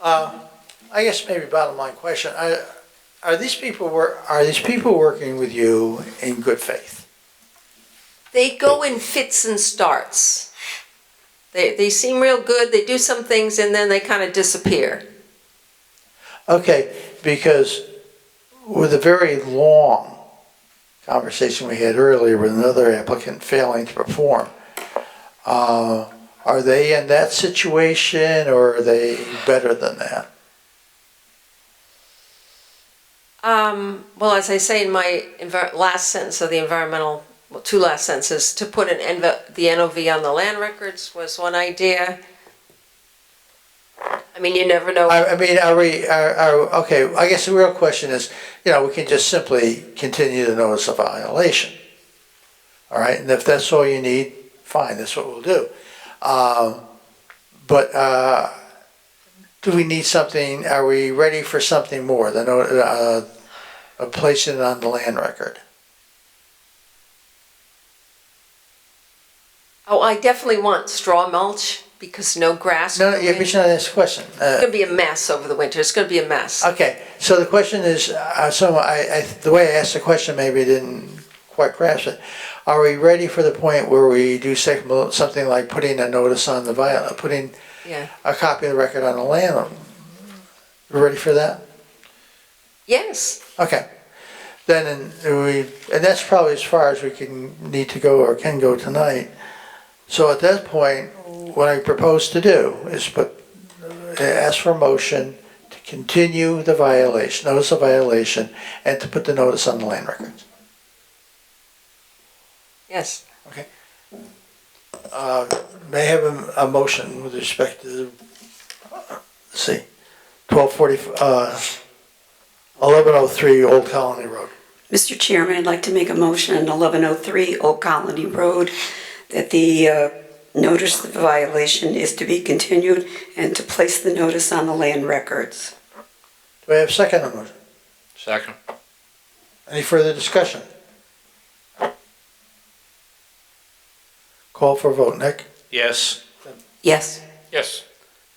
Uh, I guess maybe bottom line question, I- are these people, wor- are these people working with you in good faith? They go in fits and starts. They, they seem real good, they do some things, and then they kind of disappear. Okay, because with a very long conversation we had earlier with another applicant failing to perform, uh, are they in that situation or are they better than that? Um, well, as I say in my envir- last sentence of the environmental, well, two last sentences, to put an NV- the NOV on the land records was one idea. I mean, you never know. I, I mean, are we, are, are, okay, I guess the real question is, you know, we can just simply continue the notice of violation. All right, and if that's all you need, fine, that's what we'll do. Um, but, uh, do we need something, are we ready for something more than, uh, uh, placing it on the land record? Oh, I definitely want straw mulch because no grass. No, no, growing. you're not answering the question. Uh, It's gonna be a mess over the winter. It's gonna be a mess. Okay, so the question is, uh, so I, I, the way I asked the question, maybe I didn't quite grasp it. Are we ready for the point where we do sec- something like putting a notice on the viol, putting Yeah. a copy of the record on the land? We're Ready for that? Yes. Okay. Then, and we, and that's probably as far as we can, need to go or can go tonight. So at that point, what I propose to do is put, uh, ask for a motion to continue the violation, notice of violation, and to put the notice on the land records. Yes. Uh, May I have a, a motion with respect to, let's see, twelve forty, uh, eleven oh three Old Colony Road. Mr. Chairman, I'd like to make a motion on 1103 Old Colony Road that the uh, notice of violation is to be continued and to place the notice on the land records. Do I have a second on the motion? Second. Any further discussion? Call for vote, Nick? Yes. Yes. Yes.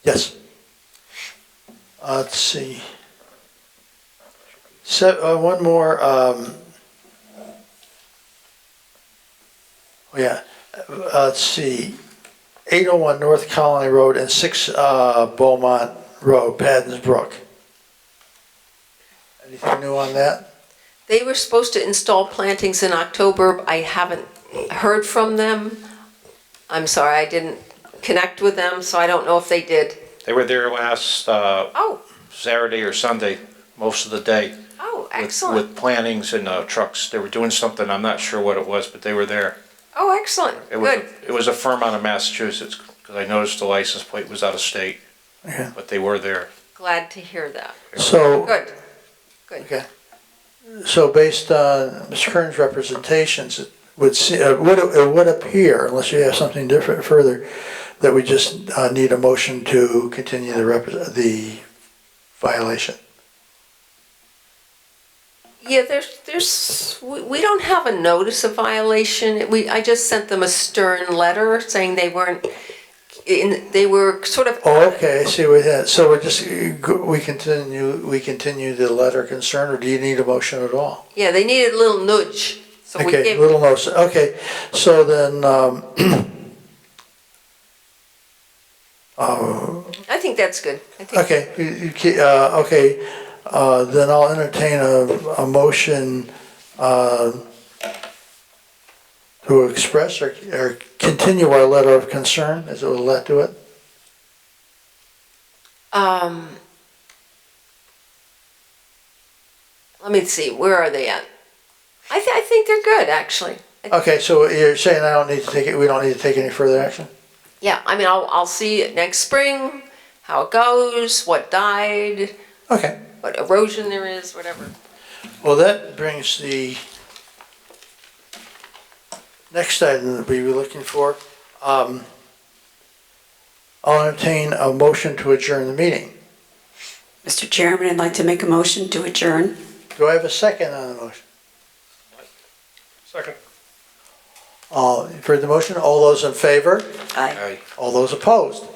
Yes. Uh, Let's see. So, uh, one more, um, oh, yeah, Uh, let's see, eight oh one North Colony Road and six, uh, Beaumont Road, Paddens Brook. Anything new on that? They were supposed to install plantings in October. I haven't heard from them. I'm sorry, I didn't connect with them, so I don't know if they did. They were there last uh, Oh, Saturday or Sunday, most of the day. with- oh, excellent. With plantings and uh, trucks. They were doing something, I'm not sure what it was, but they were there. Oh, excellent. It was, Good. It was a firm out of Massachusetts, because I noticed the license plate was out of state, Yeah. but they were there. Glad to hear that. So. Good. Okay. So based on Mr. Kern's representations, it would see, it would, it would appear, unless you have something different further, that we just uh, need a motion to continue the rep, the violation. Yeah, there's, there's, we, we don't have a notice of violation. We, I just sent them a stern letter saying they weren't, in, they were sort of. Oh, okay, I see what that, so we're just, we continue, we continue the letter of concern, or do you need a motion at all? Yeah, they needed a little nudge. So we Okay, gave, little notice, okay, so then, um, uh, I think that's good. I think Okay, you- you ke- uh, okay, uh, then I'll entertain a, a motion, uh, to express or, or continue our letter of concern, as it will let do it. Um, let me see, where are they at? I, th- I think they're good, actually. I- Okay, so you're saying I don't need to take it, we don't need to take any further action? Yeah, I mean, I'll, I'll see it next spring, how it goes, what died, Okay, what erosion there is, whatever. well, that brings the next item that we were looking for. Um, I'll entertain a motion to adjourn the meeting. Mr. Chairman, I'd like to make a motion to adjourn. Do I have a second on the motion? Second. All, you've heard the motion, all those in favor, Aye. Aye. all those opposed?